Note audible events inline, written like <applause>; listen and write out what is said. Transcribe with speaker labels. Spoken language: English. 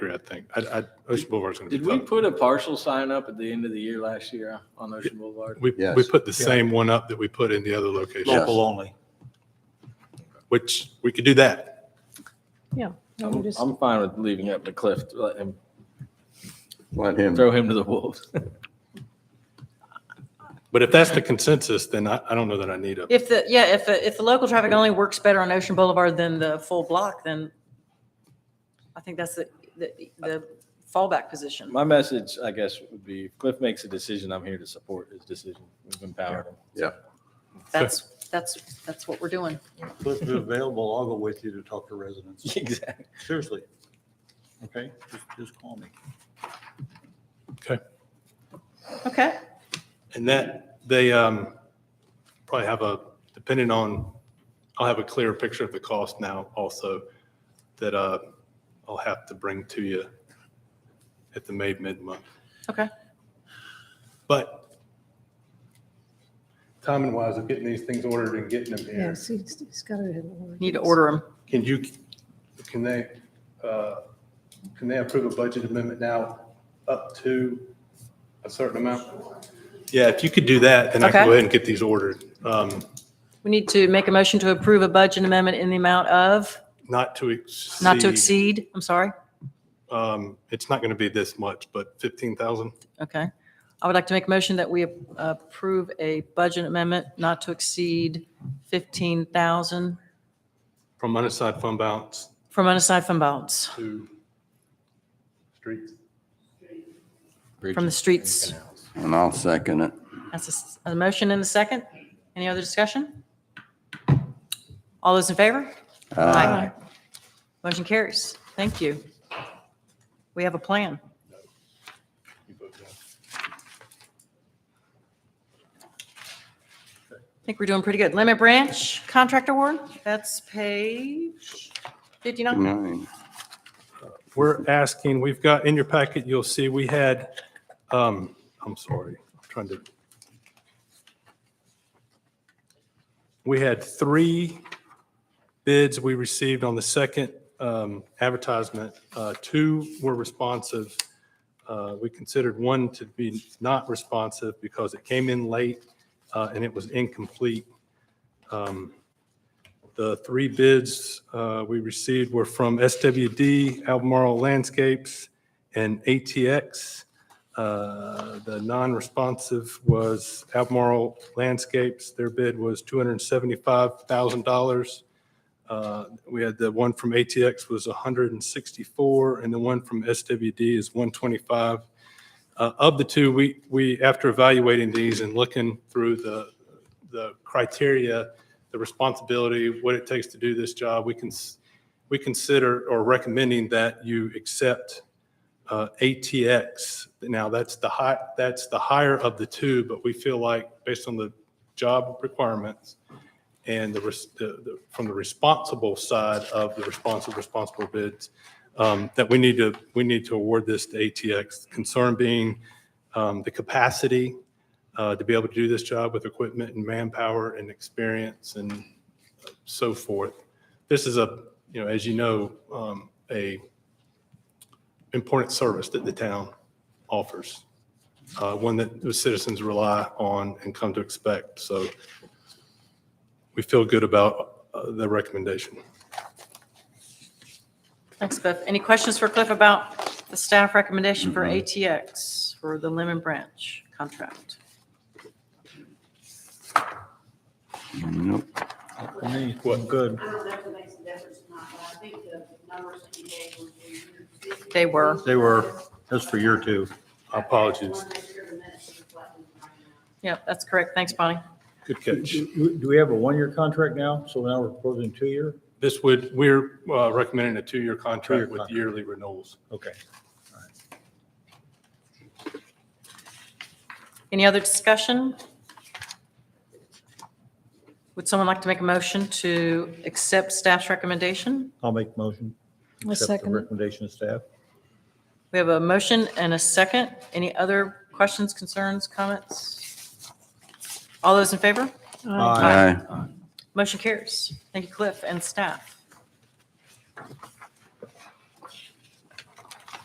Speaker 1: I think. I, I, Ocean Boulevard's gonna be
Speaker 2: Did we
Speaker 1: tough.
Speaker 2: put a partial sign up at the end of the year last year on Ocean Boulevard?
Speaker 1: We, we
Speaker 3: Yes.
Speaker 1: put the same one up that we put in the other location,
Speaker 3: Yeah.
Speaker 4: Local only.
Speaker 1: which we could do that.
Speaker 5: Yeah. and we
Speaker 2: I'm,
Speaker 5: just-
Speaker 2: I'm fine with leaving it up to Cliff, to let him,
Speaker 3: Let him,
Speaker 2: throw him to the wolves. <laughs>
Speaker 1: But if that's the consensus, then I, I don't know that I need a,
Speaker 6: If the, yeah, if, the- if the local traffic only works better on Ocean Boulevard than the full block, then I think that's the, the- the fallback position.
Speaker 2: My message, I guess, would be if Cliff makes a decision, I'm here to support his decision. We've empowered him. <laughs>
Speaker 3: yeah.
Speaker 6: That's, that's, that's what we're doing.
Speaker 4: Cliff is available, I'll go with you to talk to residents.
Speaker 2: Exactly.
Speaker 4: Seriously. Okay, just, just call me.
Speaker 1: okay.
Speaker 6: Okay.
Speaker 1: And that, they um, probably have a, depending on, I'll have a clearer picture of the cost now also that uh, I'll have to bring to you at the May mid-month.
Speaker 6: Okay.
Speaker 1: But timing wise of getting these things ordered and getting them here,
Speaker 5: Yes, he's, he's got to have one.
Speaker 6: Need to order them.
Speaker 1: can you, can they, uh, can they approve a budget amendment now up to a certain amount? Yeah, if you could do that, then I can
Speaker 6: Okay.
Speaker 1: go ahead and get these ordered. Um,
Speaker 6: We need to make a motion to approve a budget amendment in the amount of,
Speaker 1: Not to exceed.
Speaker 6: not to exceed, I'm sorry.
Speaker 1: Um, it's not going to be this much, but 15,000.
Speaker 6: Okay. I would like to make a motion that we approve a budget amendment not to exceed 15,000
Speaker 1: From unassigned fund balance
Speaker 6: from unassigned fund balance,
Speaker 1: to streets.
Speaker 6: from the streets.
Speaker 3: And I'll second it.
Speaker 6: That's a s- a, motion and a second. Any other discussion? All those in favor? Aye. Motion carries. Thank you. We have a plan. I think we're doing pretty good. Lemon Branch Contract Award, that's page 59.
Speaker 3: Nine.
Speaker 1: We're asking, we've got, in your packet, you'll see, we had, um, I'm sorry, I'm trying to. We had three bids we received on the second, um, advertisement. Uh, two were responsive. Uh, we considered one to be not responsive because it came in late, uh, and it was incomplete. Um, the three bids uh, we received were from SWD, Albemarle Landscapes, and ATX. Uh, The non-responsive was Albemarle Landscapes. Their bid was $275,000. Uh, We had the one from ATX was 164, and the one from SWD is 125. Uh, Of the two, we, we, after evaluating these and looking through the, the criteria, the responsibility, what it takes to do this job, we can, we consider or recommending that you accept uh, ATX. Now, that's the high, that's the higher of the two, but we feel like based on the job requirements and the, res- the- the- from the responsible side of the responsible, responsible bids, um, that we need to, we need to award this to ATX. Concern being um, the capacity uh, to be able to do this job with equipment and manpower and experience and so forth. This is a, you know, as you know, um, a important service that the town offers, uh, one that the citizens rely on and come to expect. So we feel good about uh, the recommendation.
Speaker 6: Thanks, Beth. Any questions for Cliff about the staff recommendation for ATX for the Lemon Branch contract?
Speaker 3: Nope.
Speaker 4: Me, I'm good.
Speaker 7: I don't know if it makes a difference or not, but I think the numbers that you gave were. reasonable.
Speaker 6: They were.
Speaker 4: They were, that's for year two.
Speaker 1: Our apologies.
Speaker 7: I want to make sure the minutes reflect them right now.
Speaker 6: Yep, that's correct. Thanks, Bonnie.
Speaker 1: Good
Speaker 4: Do
Speaker 1: catch.
Speaker 4: do we have a one-year contract now? So now we're proposing two-year?
Speaker 1: This would, we're uh, recommending a two-year
Speaker 4: Two-year
Speaker 1: contract with
Speaker 4: contract.
Speaker 1: yearly renewals.
Speaker 4: Okay.
Speaker 6: Any other discussion? Would someone like to make a motion to accept staff's recommendation?
Speaker 4: I'll make the motion.
Speaker 5: I'll
Speaker 4: Accept the
Speaker 5: second it.
Speaker 4: Recommendation of staff.
Speaker 6: We have a motion and a second. Any other questions, concerns, comments? All those in favor?
Speaker 4: Aye.
Speaker 3: Aye.
Speaker 6: Motion carries. Thank you, Cliff and staff.